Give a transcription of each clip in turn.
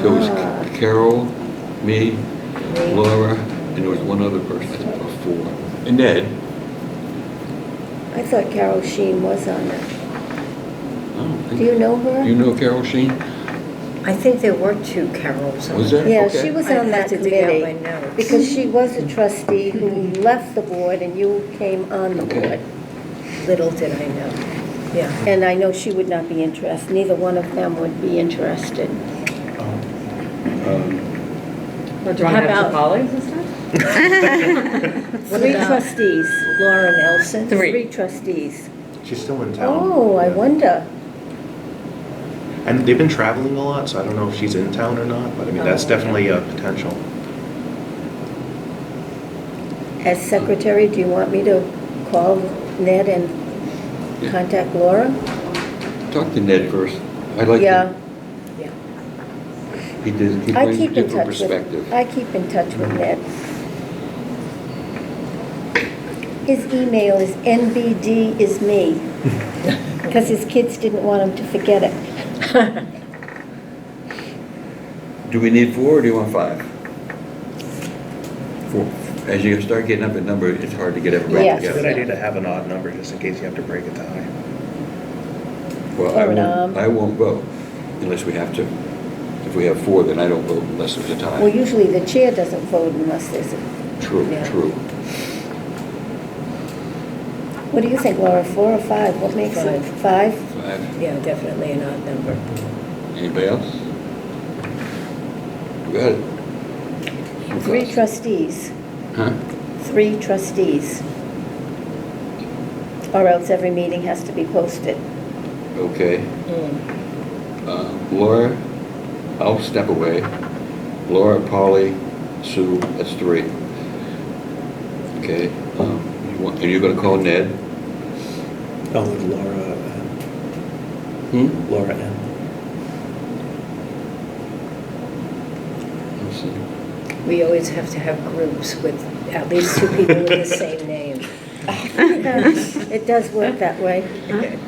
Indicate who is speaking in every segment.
Speaker 1: There was Carol, me, Laura, and there was one other person, I think, or four.
Speaker 2: And Ed?
Speaker 3: I thought Carol Sheen was on it. Do you know her?
Speaker 1: Do Oh, you know Carol Sheen? Um,
Speaker 4: I think there were two Carols on
Speaker 1: Was
Speaker 4: it.
Speaker 1: there?
Speaker 3: Yeah,
Speaker 1: Okay.
Speaker 3: she was
Speaker 4: I'd
Speaker 3: on that
Speaker 4: have to dig out
Speaker 3: committee.
Speaker 4: my notes. Mm-hmm.
Speaker 3: Because she was a trustee who left the board and you came on the
Speaker 1: Okay.
Speaker 3: board.
Speaker 4: Little did I know, yeah.
Speaker 3: And I know she would not be interested, neither one of them would be interested.
Speaker 5: Or do I
Speaker 3: How
Speaker 5: have
Speaker 3: about-
Speaker 5: two colleagues and stuff?
Speaker 4: What
Speaker 3: Three
Speaker 4: about-
Speaker 3: trustees.
Speaker 4: Laura Nelson?
Speaker 5: Three.
Speaker 3: Three trustees.
Speaker 6: She's still in town.
Speaker 3: Oh, I
Speaker 6: Yeah.
Speaker 3: wonder.
Speaker 6: And they've been traveling a lot, so I don't know if she's in town or not, but I mean, that's
Speaker 5: Oh.
Speaker 6: definitely a potential.
Speaker 3: As secretary, do you want me to call Ned and contact Laura?
Speaker 1: Talk to Ned first. I'd like
Speaker 3: Yeah,
Speaker 1: to, he did, he
Speaker 3: I
Speaker 1: brings a
Speaker 3: keep in
Speaker 1: different
Speaker 3: touch with,
Speaker 1: perspective.
Speaker 3: I keep in touch with Ned. His email is NBD is me, because his kids didn't want him to forget it.
Speaker 1: Do we need four or do you want five? Four. As you start getting up in number, it's hard to get everybody
Speaker 3: Yes.
Speaker 6: It's a
Speaker 1: together.
Speaker 6: good idea to have an odd number, just in case you have to break it to high.
Speaker 1: Well, I
Speaker 3: Or,
Speaker 1: won't,
Speaker 3: um,
Speaker 1: I won't vote unless we have to. If we have four, then I don't vote unless there's a
Speaker 3: Well,
Speaker 1: tie.
Speaker 3: usually the chair doesn't vote unless there's a,
Speaker 1: True,
Speaker 4: Yeah.
Speaker 1: true.
Speaker 3: what do you think, Laura, four or five? What makes it? Five?
Speaker 1: Five.
Speaker 4: Yeah, definitely an odd number.
Speaker 1: Anybody else? You got it. You
Speaker 3: Three
Speaker 1: first.
Speaker 3: trustees,
Speaker 1: Huh?
Speaker 3: three trustees. Or else every meeting has to be posted.
Speaker 1: Okay.
Speaker 5: Mm.
Speaker 1: Uh, Laura, I'll step away. Laura, Polly, Sue, that's three. Okay, um, you want- and you're gonna call Ned?
Speaker 7: Oh, Laura,
Speaker 1: Hmm?
Speaker 7: uh, Laura M.
Speaker 1: Let's see.
Speaker 4: We always have to have groups with at least two people with the same name.
Speaker 5: Oh,
Speaker 3: It does work that way.
Speaker 4: Uh-huh.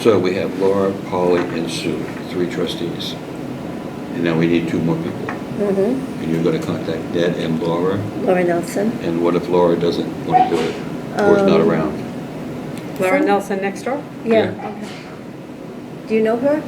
Speaker 1: So we have Laura, Polly, and Sue, three trustees. And now we need two more people.
Speaker 3: Mm-hmm.
Speaker 1: And you're gonna contact Ned and Laura?
Speaker 3: Laura Nelson.
Speaker 1: And what if Laura doesn't wanna do it? Or is not
Speaker 3: Um,
Speaker 1: around?
Speaker 5: Laura Nelson next door?
Speaker 3: Yeah. Do you know her?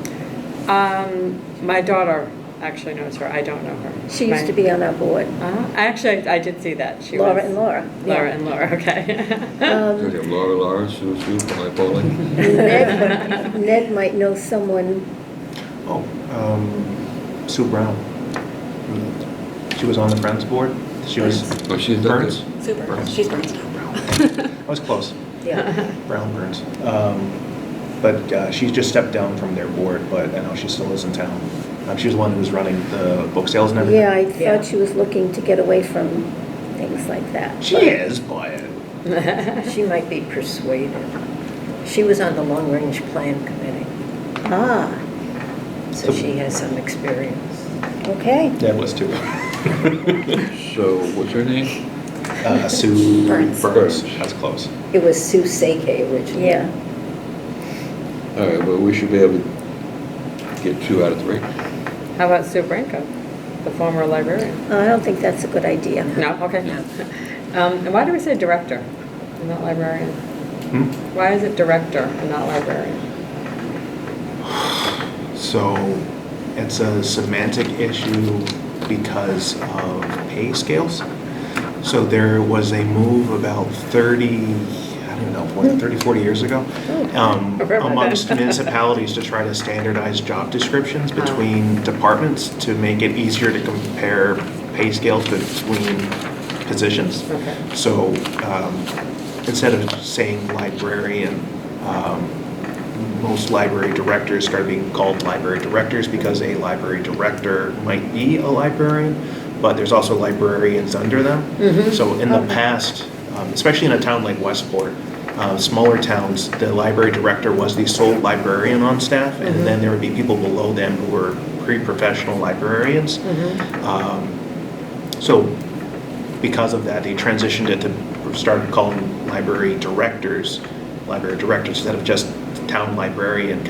Speaker 5: Um, my daughter actually knows her, I don't know her.
Speaker 3: She used
Speaker 5: My-
Speaker 3: to be on our board,
Speaker 5: Uh-huh. I Actually, I did see that, she was.
Speaker 3: Laura and Laura.
Speaker 5: Laura
Speaker 3: yeah.
Speaker 5: and Laura,
Speaker 4: Uh,
Speaker 5: okay.
Speaker 1: So we
Speaker 3: Um,
Speaker 1: have Laura, Laura, Sue, Sue, Polly, Polly?
Speaker 3: Ned Ned might know someone,
Speaker 6: Oh, um, Sue Brown. She was on the Friends board. She was.
Speaker 1: Oh, she's not
Speaker 6: Burns?
Speaker 1: good.
Speaker 8: Super.
Speaker 6: Burns.
Speaker 8: She's Burns now.
Speaker 6: I was close.
Speaker 4: Yeah.
Speaker 6: Brown Burns. Um, But uh, she's just stepped down from their board, but I know she still is in town. Um, She was the one who was running the book sales and everything.
Speaker 3: yeah, I
Speaker 4: Yeah.
Speaker 3: thought she was looking to get away from things like that.
Speaker 6: She is, but
Speaker 4: She might be persuaded. She was on the Long Range Plan Committee,
Speaker 3: Ah,
Speaker 4: so she has some experience.
Speaker 3: okay.
Speaker 6: Deb was too.
Speaker 1: So what's her name?
Speaker 6: Uh, Sue
Speaker 8: Burns.
Speaker 6: Burns. That's close.
Speaker 4: It was Sue Seike originally.
Speaker 3: Yeah,
Speaker 1: All right, well, we should be able to get two out of three.
Speaker 5: How about Sue Branco, the former librarian?
Speaker 3: I don't think that's a good idea.
Speaker 5: No, okay. Um, and why do we say director and not librarian?
Speaker 6: Hmm?
Speaker 5: Why is it director and not librarian?
Speaker 6: So it's a semantic issue because of pay scales. So there was a move about 30, I don't know, what, 30, 40 years ago um,
Speaker 5: Hmm. I remember that. Uh-huh.
Speaker 6: amongst municipalities to try to standardize job descriptions between departments to make it easier to compare pay scales between positions.
Speaker 5: Okay.
Speaker 6: So um, instead of saying librarian, um, most library directors started being called library directors because a library director might be a librarian, but there's also librarians under them. So in the past, um, especially in a town like Westport, uh, smaller towns, the library director was the sole librarian on staff, and then there would be people below them who were pre-professional librarians. Um, So because of that, they transitioned it to, started calling library directors, library directors instead of just town librarian